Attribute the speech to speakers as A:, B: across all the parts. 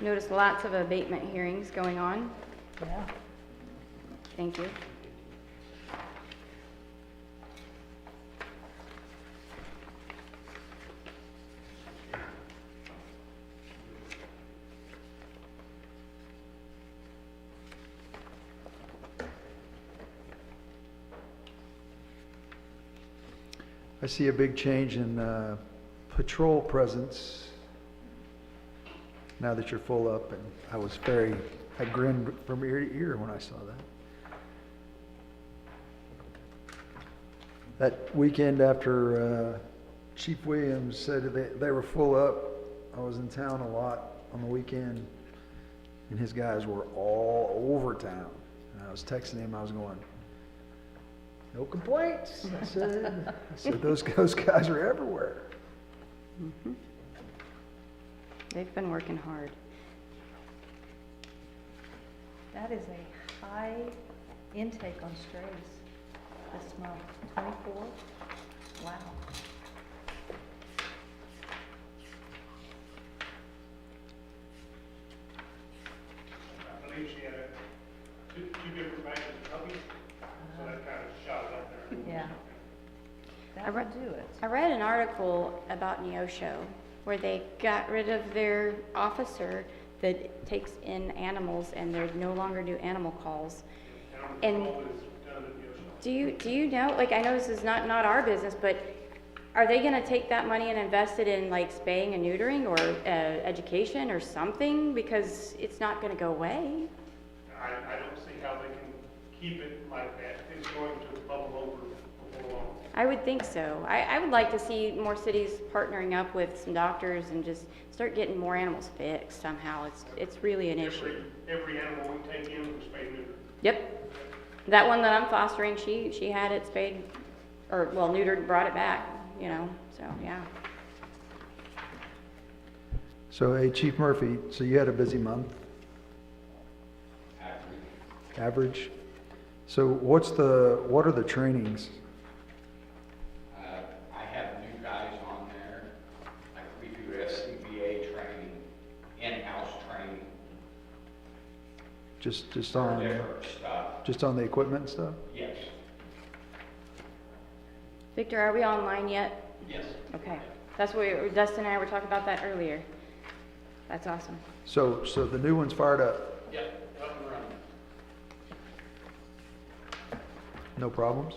A: Notice lots of abatement hearings going on.
B: Yeah.
A: Thank you.
C: I see a big change in uh, patrol presence now that you're full up, and I was very, I grinned from ear to ear when I saw that. That weekend after uh, Chief Williams said that they, they were full up, I was in town a lot on the weekend, and his guys were all over town. And I was texting him, I was going, no complaints. I said, I said those, those guys are everywhere.
A: They've been working hard.
B: That is a high intake on strays this month, 24? Wow.
D: I believe she had a, two, two different batches of puppies, so that kind of shot it up there.
B: Yeah.
A: I
B: That
A: re-
B: would do it.
A: I read an article about Neosho where they got rid of their officer that takes in animals and they no longer do animal calls.
D: And
A: And-
D: all is done at Yoshio.
A: Do you, do you know, like, I know this is not, not our business, but are they gonna take that money and invest it in like spaying and neutering or, uh, education or something? Because it's not gonna go away.
D: I, I don't see how they can keep it like that. It's going to bubble over before long.
A: I would think so. I, I would like to see more cities partnering up with some doctors and just start getting more animals fixed somehow. It's, it's really an issue.
D: Every, every animal we take in was spayed and neutered.
A: Yep. That one that I'm fostering, she, she had it spayed, or, well, neutered, brought it back, you know, so, yeah.
C: So, hey, Chief Murphy, so you had a busy month? Average. Average? So what's the, what are the trainings?
E: Uh, I have new guys on there. Like, we do SCBA training, in-house training,
C: Just, just
E: for
C: on,
E: different stuff.
C: just on the equipment and stuff?
E: Yes,
A: Victor, are we online yet?
E: yes.
A: Okay, that's what, we- Dustin and I were talking about that earlier. That's awesome.
C: So, so the new one's fired up,
E: Yep, up and running.
C: no problems?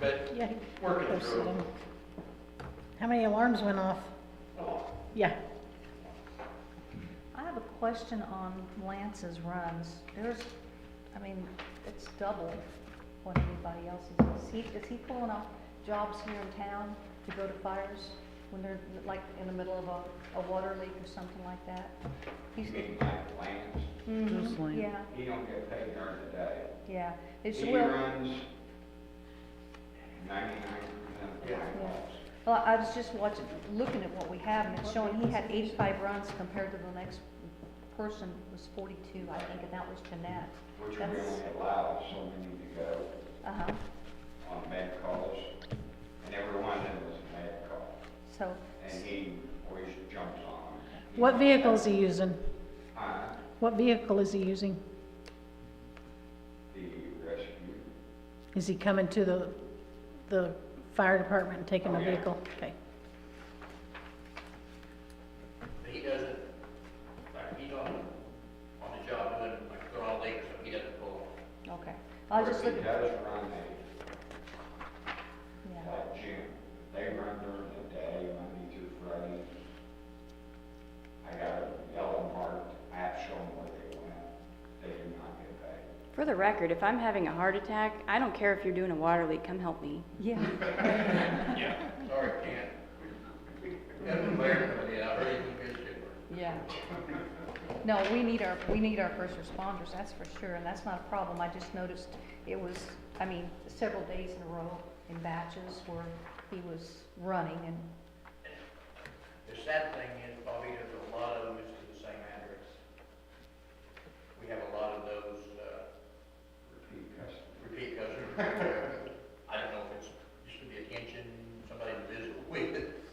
E: But
F: Yeah,
E: working through it.
F: How many alarms went off? Yeah.
B: I have a question on Lance's runs. There's, I mean, it's double what anybody else is. Is he, is he pulling off jobs here in town to go to fires when they're like in the middle of a, a water leak or something like that? He's, mm-hmm.
E: You mean like Lance?
B: yeah,
E: He don't get paid during the day.
B: yeah. It's,
E: He
B: well,
E: runs ninety-nine percent of the time.
B: well, I was just watching, looking at what we have and it's showing he had eighty-five runs compared to the next person was forty-two, I think, and that was Jeanette.
E: Which we
B: That's-
E: only allow so many to go
B: Uh-huh.
E: on med calls. And every one of them is a med call.
B: So,
E: And he always jumps on them.
F: What vehicle is he using?
E: Uh,
F: What vehicle is he using?
E: the rescue.
F: Is he coming to the, the fire department and taking
E: Oh,
F: a
E: yeah.
F: vehicle? Okay.
G: But he doesn't, like, he's on, on the job doing, like, they're all late, so he doesn't pull.
B: okay. I was just
E: Or if
B: looking,
E: He does run a,
B: yeah.
E: like gym. They run during the day, Monday through Friday. I got a yellow marked app showing where they went. They do not get paid.
A: For the record, if I'm having a heart attack, I don't care if you're doing a water leak, come help me.
B: Yeah,
G: Sorry, Ken. That's clear, but yeah, I really think it's good.
B: yeah. No, we need our, we need our first responders, that's for sure, and that's not a problem. I just noticed it was, I mean, several days in a row in batches where he was running and,
G: The sad thing is, uh,